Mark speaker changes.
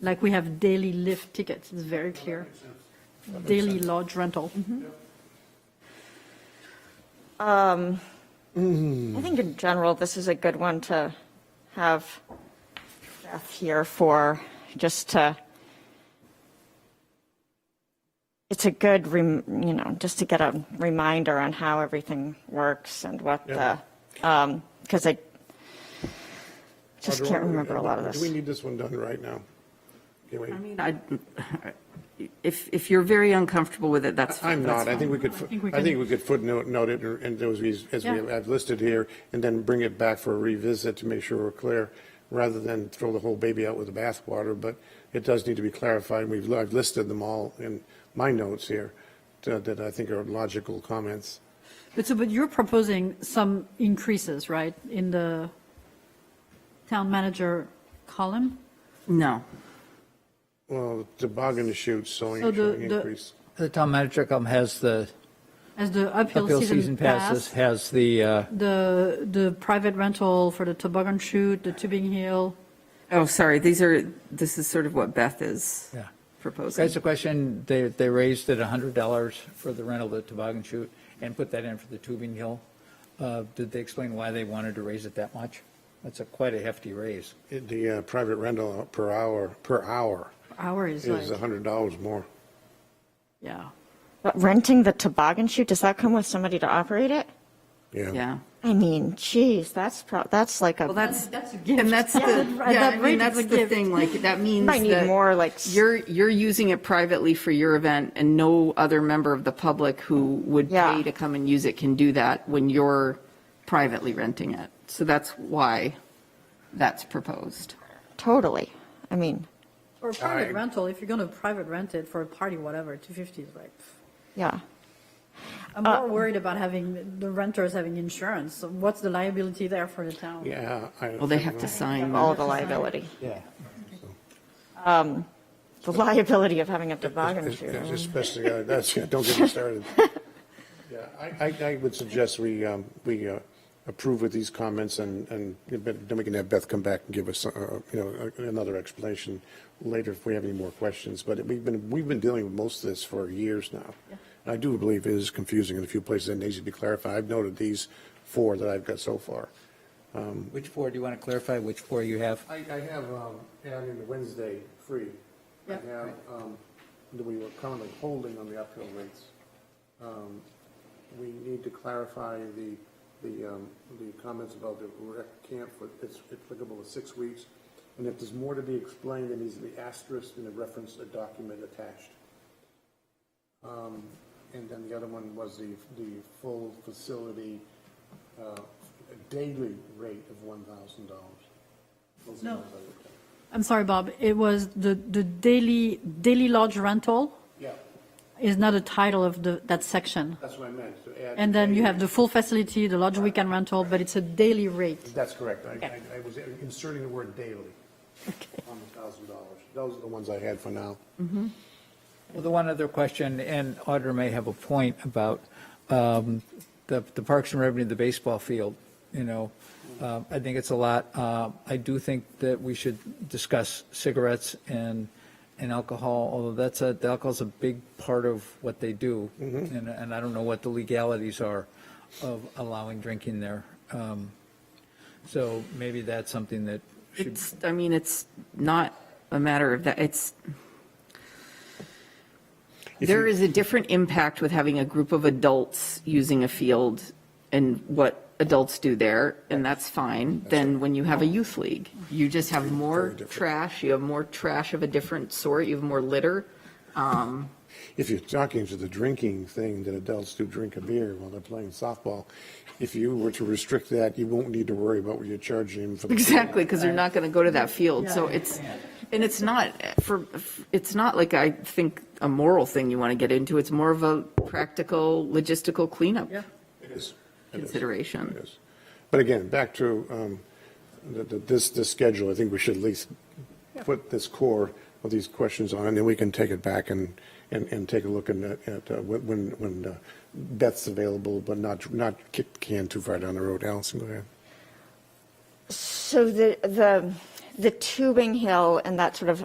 Speaker 1: Like we have daily lift tickets, it's very clear. Daily lodge rental.
Speaker 2: I think in general, this is a good one to have Jeff here for, just to, it's a good, rem- you know, just to get a reminder on how everything works and what the, because I just
Speaker 3: Audra,
Speaker 2: can't
Speaker 3: why don't we-
Speaker 2: remember a lot of
Speaker 3: uh, Do we
Speaker 2: this.
Speaker 3: need this one done right now? Can we-
Speaker 4: I mean, I, if, if you're very uncomfortable with it, that's.
Speaker 3: I'm
Speaker 4: that's
Speaker 3: not, I
Speaker 4: fine.
Speaker 3: think we could,
Speaker 1: think we
Speaker 3: fo- I
Speaker 1: can-
Speaker 3: think we could footnote note it or- and those, we- as we
Speaker 1: Yeah.
Speaker 3: have listed here, and then bring it back for a revisit to make sure we're clear, rather than throw the whole baby out with the bathwater, but it does need to be clarified. We've, I've listed them all in my notes here to- that I think are logical comments.
Speaker 1: But so, but you're proposing some increases, right, in the town manager column?
Speaker 4: No.
Speaker 3: Well, toboggan chutes, sewing
Speaker 1: So the- the-
Speaker 3: increase.
Speaker 5: The town manager come has the
Speaker 1: As the uphill
Speaker 5: appeal season
Speaker 1: season
Speaker 5: passes,
Speaker 1: pass,
Speaker 5: has the, uh,
Speaker 1: the, the private rental for the toboggan chute, the tubing hill,
Speaker 4: Oh, sorry, these are, this is sort of what Beth is
Speaker 5: Yeah.
Speaker 4: proposing.
Speaker 5: that's a question, they, they raised it $100 for the rental of the toboggan chute and put that in for the tubing hill. Uh, Did they explain why they wanted to raise it that much? That's a quite a hefty raise.
Speaker 3: The uh, private rental per hour, per hour
Speaker 1: hour is
Speaker 3: is
Speaker 1: like,
Speaker 3: $100 more.
Speaker 1: yeah.
Speaker 2: But renting the toboggan chute, does that come with somebody to operate it?
Speaker 4: Yeah.
Speaker 2: I mean, geez, that's, pro- that's like
Speaker 4: Well,
Speaker 2: a,
Speaker 4: that's, and that's the,
Speaker 1: that-
Speaker 4: yeah,
Speaker 1: that
Speaker 4: I
Speaker 1: rate is
Speaker 4: mean,
Speaker 1: a
Speaker 4: that's the
Speaker 1: gift.
Speaker 4: thing, like, that means
Speaker 2: might need
Speaker 4: that
Speaker 2: more like s-
Speaker 4: You're, you're using it privately for your event and no other member of the public who would
Speaker 2: Yeah.
Speaker 4: pay to come and use it can do that when you're privately renting it. So that's why that's proposed.
Speaker 2: totally. I mean,
Speaker 1: Or private
Speaker 3: I-
Speaker 1: rental, if you're going to private rent it for a party, whatever, 250 is like, pff.
Speaker 2: yeah.
Speaker 1: I'm more worried about having, the renters having insurance. So What's the liability there for the town?
Speaker 3: Yeah. I-
Speaker 4: Well, they have to sign. that.
Speaker 2: all the liability.
Speaker 5: Yeah.
Speaker 2: The liability of having a toboggan
Speaker 3: Es-
Speaker 2: chute. I
Speaker 3: es-
Speaker 2: mean,
Speaker 3: Especially, uh, that's, yeah, don't get me started. Yeah, I, I, I would suggest we, um, we uh, approve with these comments and, and then we can have Beth come back and give us, uh, you know, another explanation later if we have any more questions. But we've been, we've been dealing with most of this for years now. And I do believe it is confusing in a few places and needs to be clarified. I've noted these four that I've got so far.
Speaker 5: Which four, do you want to clarify which four you have?
Speaker 3: I, I have, um, adding the Wednesday free. I
Speaker 1: Yeah.
Speaker 3: have, um, that we were currently holding on the uphill rates. Um, we need to clarify the, the, um, the comments about the rec camp, for it's applicable to six weeks. And if there's more to be explained, it needs to be asterisked and a reference, a document attached. Um, And then the other one was the, the full facility, uh, daily rate of one thousand dollars.
Speaker 1: No. I'm sorry, Bob, it was the, the daily, daily lodge rental
Speaker 3: Yeah,
Speaker 1: is not a title of the, that section.
Speaker 3: that's what I meant, to add.
Speaker 1: And then you have the full facility, the lodge weekend rental, but it's a daily rate.
Speaker 3: That's correct. I,
Speaker 1: Okay.
Speaker 3: I- I was inserting the word daily on the thousand dollars. Those are the ones I had for now.
Speaker 5: Well, the one other question, and Audra may have a point about um, the the Parks and Revenue, the baseball field, you know, uh, I think it's a lot. Uh, I do think that we should discuss cigarettes and, and alcohol, although that's a, the alcohol's a big part of what they do. And, and I don't know what the legalities are of allowing drinking there. Um, So maybe that's something that should,
Speaker 4: It's, I mean, it's not a matter of that, it's, there is a different impact with having a group of adults using a field and what adults do there, and that's fine, than when you have a youth league. You just have more
Speaker 3: different.
Speaker 4: trash, you have more trash of a different sort, you have more litter. Um,
Speaker 3: If you're talking to the drinking thing that adults do drink a beer while they're playing softball, if you were to restrict that, you won't need to worry about what you're charging them for. the-
Speaker 4: Exactly, because they're not going to go to that field. So it's, and it's not for, it's not like I think a moral thing you want to get into. It's more of a practical, logistical cleanup
Speaker 3: It is. It is.
Speaker 4: consideration.
Speaker 3: Yes. But again, back to um, the- the- this, this schedule, I think we should at least put this core of these questions on, and then we can take it back and, and, and take a look and, uh, at uh, when- when, when uh, Beth's available, but not, not kick the can too far down the road. Allison, go ahead.
Speaker 2: So the, the, the tubing hill and that sort of